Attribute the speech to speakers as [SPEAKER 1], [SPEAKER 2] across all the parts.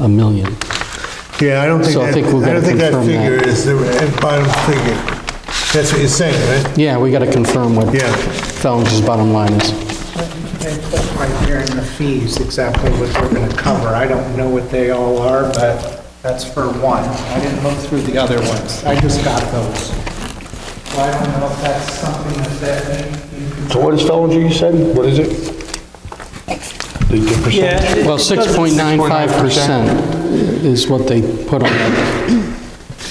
[SPEAKER 1] a million.
[SPEAKER 2] Yeah, I don't think
[SPEAKER 1] So I
[SPEAKER 2] that,
[SPEAKER 1] think we're
[SPEAKER 2] I
[SPEAKER 1] gonna
[SPEAKER 2] don't think that
[SPEAKER 1] confirm that.
[SPEAKER 2] figure is the bottom figure. That's what you're saying, right?
[SPEAKER 1] Yeah, we got to confirm what
[SPEAKER 2] Yeah.
[SPEAKER 1] Fellings' bottom line is.
[SPEAKER 3] They put right there in the fees exactly what we're going to cover. I don't know what they all are, but that's for one. I didn't look through the other ones. I just got those. So I don't know if that's something that that you can...
[SPEAKER 4] So what is Fellinger, you said? What is it? The- The percentage?
[SPEAKER 1] Well, 6.95% is what they put on that,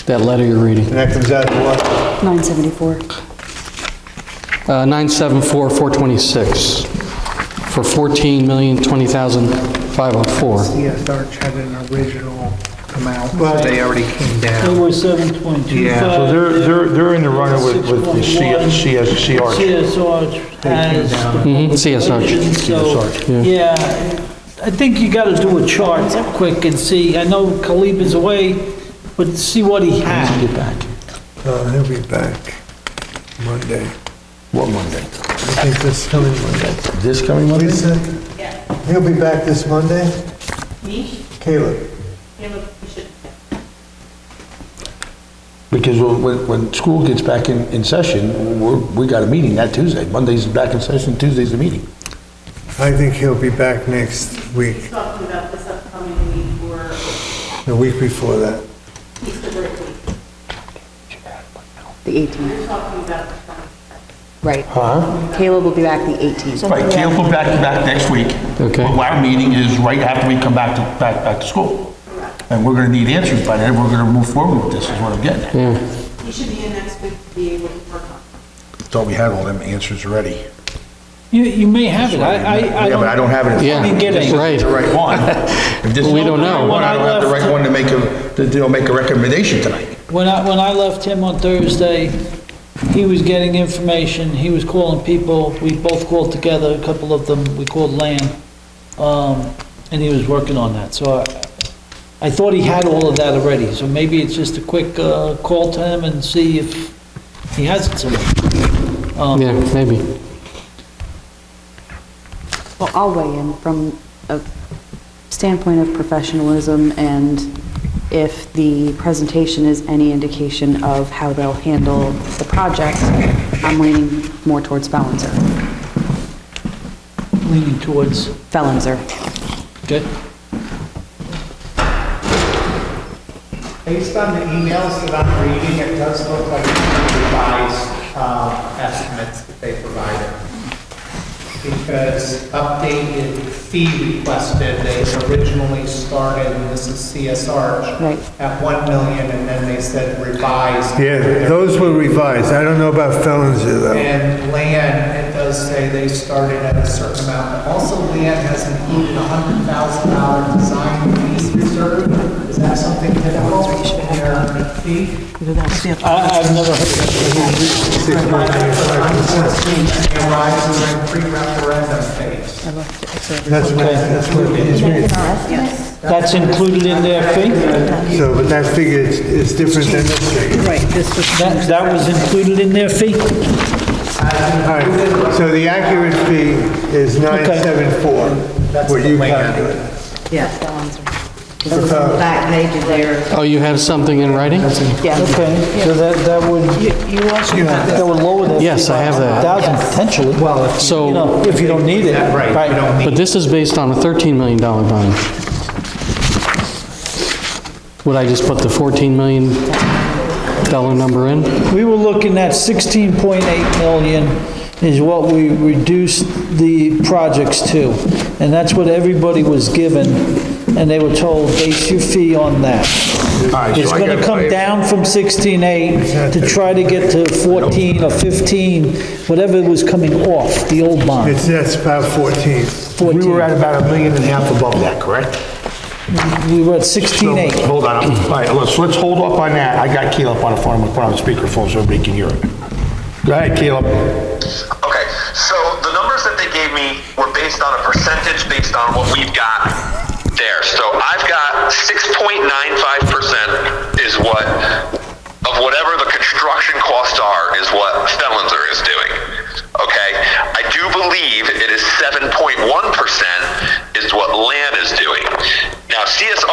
[SPEAKER 1] that letter you're reading.
[SPEAKER 2] And that comes out to what?
[SPEAKER 5] 974.
[SPEAKER 1] Uh, 974,426 for 14,020,504.
[SPEAKER 3] CSR had an original amount,
[SPEAKER 2] Right.
[SPEAKER 3] but they already came
[SPEAKER 6] They
[SPEAKER 3] down.
[SPEAKER 6] were seven point two
[SPEAKER 3] Yeah.
[SPEAKER 6] five.
[SPEAKER 3] So
[SPEAKER 4] So they're, they're, they're in the running with, with the CS, CS, CR.
[SPEAKER 6] CSR has.
[SPEAKER 1] Mhm, CSR.
[SPEAKER 6] So, yeah, I think you gotta do a chart quick and see, I know Khalib is away, but see what he had.
[SPEAKER 2] Uh, he'll be back Monday.
[SPEAKER 4] What Monday?
[SPEAKER 2] I think this coming Monday.
[SPEAKER 4] This coming Monday?
[SPEAKER 2] Lisa? He'll be back this Monday?
[SPEAKER 7] Me?
[SPEAKER 2] Caleb?
[SPEAKER 7] Yeah, look, we should.
[SPEAKER 4] Because when- when, when school gets back in, in session, we're, we got a meeting that Tuesday. Monday's back in session, Tuesday's the meeting.
[SPEAKER 2] I think he'll be back next week,
[SPEAKER 7] Talking about this upcoming week or
[SPEAKER 2] the week before that.
[SPEAKER 7] Easter break week.
[SPEAKER 5] The 18th,
[SPEAKER 7] We're talking about the twenty.
[SPEAKER 5] right.
[SPEAKER 4] Huh?
[SPEAKER 5] Caleb will be back the 18th.
[SPEAKER 4] Right, Caleb will back, back next week.
[SPEAKER 1] Okay.
[SPEAKER 4] Well, Our meeting is right after we come back to, back, back to school. And we're gonna need answers by then, we're gonna move forward with this, is what I'm getting at.
[SPEAKER 1] Yeah.
[SPEAKER 7] You should be in next week to be able to work on. it.
[SPEAKER 4] Thought we had all them answers already.
[SPEAKER 6] You, you may have it, I, I, I
[SPEAKER 4] Yeah, but I don't
[SPEAKER 6] don't,
[SPEAKER 4] have it. in
[SPEAKER 1] Yeah,
[SPEAKER 4] front of me.
[SPEAKER 6] Get it.
[SPEAKER 4] This isn't
[SPEAKER 1] right.
[SPEAKER 4] The right one. If this
[SPEAKER 1] We
[SPEAKER 4] isn't
[SPEAKER 1] don't
[SPEAKER 4] the
[SPEAKER 1] know.
[SPEAKER 4] right one, I don't have the right one to make a, to, you know, make a recommendation tonight.
[SPEAKER 6] when I, when I left him on Thursday, he was getting information, he was calling people, we both called together, a couple of them, we called Lan, um, and he was working on that, so I, I thought he had all of that already, so maybe it's just a quick, uh, call to him and see if he has it somewhere.
[SPEAKER 1] Yeah, maybe.
[SPEAKER 5] Well, I'll weigh in from a standpoint of professionalism and if the presentation is any indication of how they'll handle the project, I'm leaning more towards Felonzer.
[SPEAKER 6] leaning towards,
[SPEAKER 5] Felonzer.
[SPEAKER 6] okay?
[SPEAKER 3] Based on the emails that I'm reading, it does look like revised uh, estimates that they provided. Because updated fee requested, they originally started, and this is CSR,
[SPEAKER 5] Right.
[SPEAKER 3] at 1 million, and then they said revised.
[SPEAKER 2] Yeah, those were revised. I don't know about Fellinger though.
[SPEAKER 3] And land, it does say they started at a certain amount. Also, land has included a hundred thousand dollar design fees reserve. Is that something typical in their fee?
[SPEAKER 6] I, I've never heard of that.
[SPEAKER 3] It arises during pre-referendum phase.
[SPEAKER 2] That's what, that's what it is.
[SPEAKER 6] That's included in their fee?
[SPEAKER 2] So, but that figure is, is different than this figure.
[SPEAKER 8] Right, this was.
[SPEAKER 6] That, that was included in their fee?
[SPEAKER 2] All right, so the accurate fee is 974, what you calculated.
[SPEAKER 8] Yeah. This is the back page of their.
[SPEAKER 1] Oh, you have something in writing?
[SPEAKER 6] Okay, so that, that would,
[SPEAKER 8] You also got
[SPEAKER 6] that would lower their fee.
[SPEAKER 1] Yes, I have that.
[SPEAKER 6] Thousand potentially. Well, if,
[SPEAKER 1] So-
[SPEAKER 6] you know, if you don't need it. Right.
[SPEAKER 1] But this is based on a $13 million bond. Would I just put the $14 million dollar number in?
[SPEAKER 6] We were looking at 16.8 million is what we reduced the projects to. And that's what everybody was given, and they were told, base your fee on that. It's gonna come down from 16.8 to try to get to 14 or 15, whatever was coming off the old bond.
[SPEAKER 2] It's, that's about 14.
[SPEAKER 4] We
[SPEAKER 6] 14.
[SPEAKER 4] were at about a million and a half above that, correct?
[SPEAKER 6] We were at 16.8.
[SPEAKER 4] Hold on, all right, let's, let's hold up on that. I got Caleb on the phone, we'll put on speakerphone so everybody can hear it. Go ahead, Caleb.
[SPEAKER 9] Okay, so the numbers that they gave me were based on a percentage based on what we've got there. So I've got 6.95% is what, of whatever the construction costs are, is what Fellinzer is doing. Okay? I do believe it is 7.1% is what land is doing. Now, CSR